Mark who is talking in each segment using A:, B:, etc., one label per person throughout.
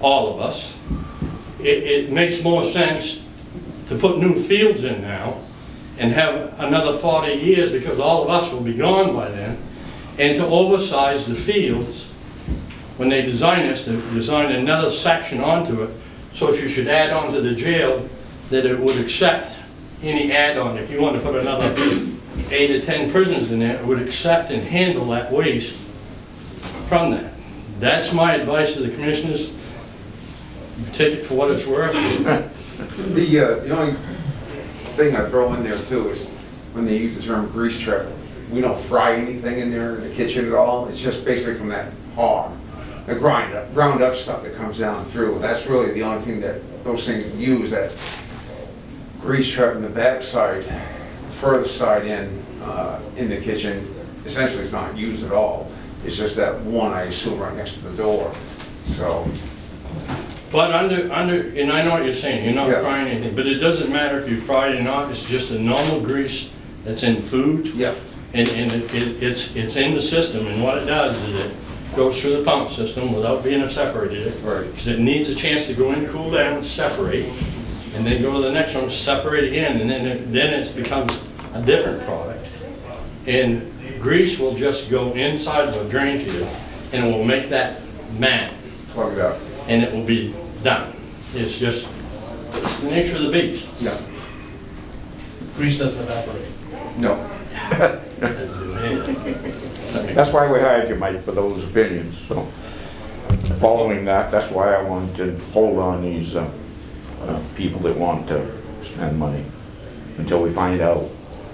A: all of us. It, it makes more sense to put new fields in now and have another 40 years because all of us will be gone by then, and to oversize the fields when they design this, to design another section onto it. So if you should add on to the jail, that it would accept any add-on. If you want to put another eight or 10 prisons in there, it would accept and handle that waste from that. That's my advice to the commissioners. Take it for what it's worth.
B: The, uh, the only thing I throw in there too is when they use the term grease trap, we don't fry anything in there in the kitchen at all. It's just basically from that hog, the grind up, ground up stuff that comes down through. That's really the only thing that those things use, that grease trap in the back side, further side in, uh, in the kitchen, essentially is not used at all. It's just that one, I assume, right next to the door. So,
A: But under, under, and I know what you're saying, you're not
B: Yeah.
A: frying anything, but it doesn't matter if you fry it or not, it's just a normal grease that's in food.
B: yeah,
A: And, and it- it, it's, it's in the system, and what it does is it goes through the pump system without being separated.
B: Right.
A: Because it needs a chance to go in, cool down, separate, and then go to the next one, separate again, and then, it- then it becomes a different product. And grease will just go inside of a drain field, and it will make that mat,
B: plug it up.
A: and it will be done. It's just, it's the nature of the beast.
B: No,
C: Grease doesn't evaporate.
B: no.
D: That's why we hired you, Mike, for those opinions, so. Following that, that's why I wanted to hold on these, uh, uh, people that want to spend money until we find out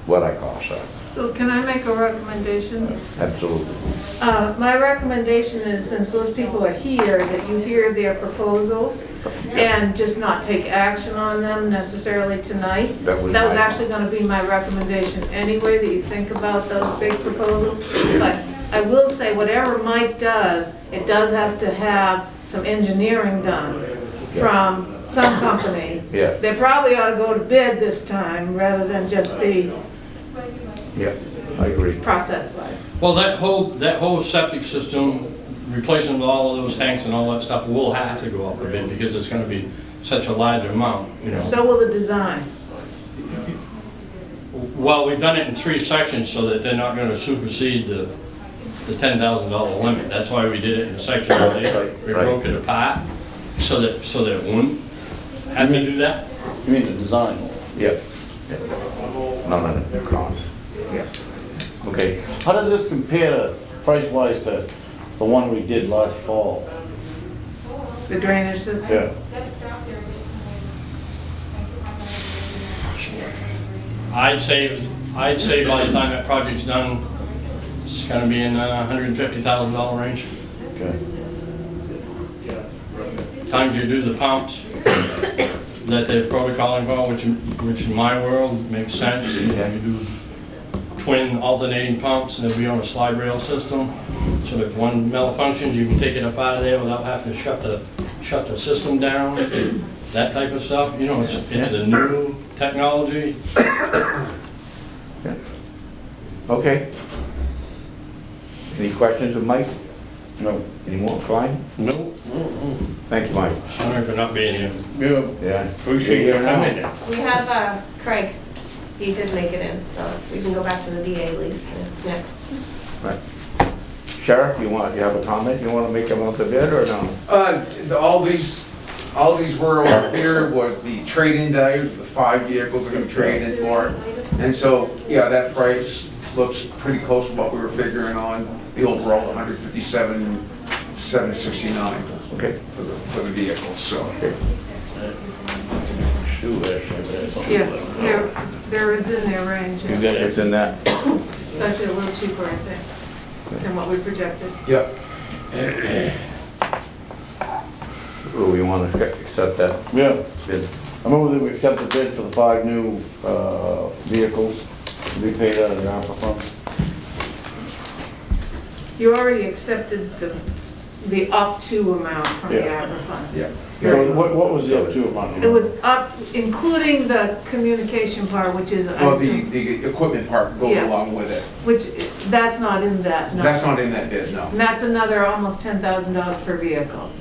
D: what our costs are.
E: So can I make a recommendation?
D: Absolutely.
E: Uh, My recommendation is, since those people are here, that you hear their proposals and just not take action on them necessarily tonight.
D: That was my-
E: actually going to be my recommendation anyway, that you think about those big proposals. But I will say, whatever Mike does, it does have to have some engineering done from some company.
D: Yeah.
E: They probably ought to go to bid this time rather than just be
D: Yeah, I agree.
E: process-wise.
A: Well, that whole, that whole septic system, replacing all of those tanks and all that stuff, will have to go up a bit because it's gonna be such a large amount, you know.
E: So will the design.
A: Well, we've done it in three sections so that they're not gonna supersede the, the ten thousand dollar limit. That's why we did it in sections. We
D: Right.
A: broke it apart so that, so that it wouldn't have to do that.
F: You mean the design?
D: Yeah. Yeah. None of the costs. Yeah. Okay,
F: How does this compare to, price-wise to the one we did last fall?
E: The drainage system?
F: Yeah.
A: I'd say, I'd say by the time that project's done, it's gonna be in a hundred and fifty thousand dollar range.
F: Okay.
A: times you do the pumps, that the protocol involved, which, in- which in my world makes sense. You know, you do twin alternating pumps, and they'll be on a slide rail system. So if one malfunctions, you can take it up out of there without having to shut the, shut the system down, that type of stuff. You know, it's, it's a new technology.
D: okay. Any questions of Mike?
F: No.
D: Any more, Clyde?
A: Nope.
D: Thanks, Mike.
A: Sorry for not being here.
C: Yeah,
D: Yeah.
C: appreciate you
D: You're here now.
C: coming.
G: We have uh, Craig, he did make it in, so we can go back to the DA lease that's next.
D: Right. Sheriff, you want, you have a comment? You want to make about the bid or no?
B: Uh, the- all these, all these were over here was the trade-in value, the five vehicles are gonna trade in for. it. And so, yeah, that price looks pretty close to what we were figuring on, the overall hundred fifty-seven, seven sixty-nine
D: Okay.
B: for the, for the vehicles, so.
F: Shoot, actually,
E: Yeah, they're, they're within their range,
F: but- You
E: yeah.
F: got
D: It's
F: it.
D: in that.
E: It's actually a little cheaper, I think, than what we projected.
B: Yeah,
D: Well, we want to oh, accept that
F: Yeah.
D: bid.
F: I move that we accept the bid for the five new uh, vehicles to be paid out of the ARPA funds.
E: You already accepted the, the up to amount from the
F: Yeah.
E: ARPA funds.
B: yeah.
F: So what, what was the other two amount?
E: It was up, including the communication part, which is, I
B: Well, the,
E: assume-
B: the equipment part goes
E: Yeah.
B: along with it.
E: which, that's not in that number.
B: That's not in that bid, no.
E: And that's another almost $10,000 per vehicle.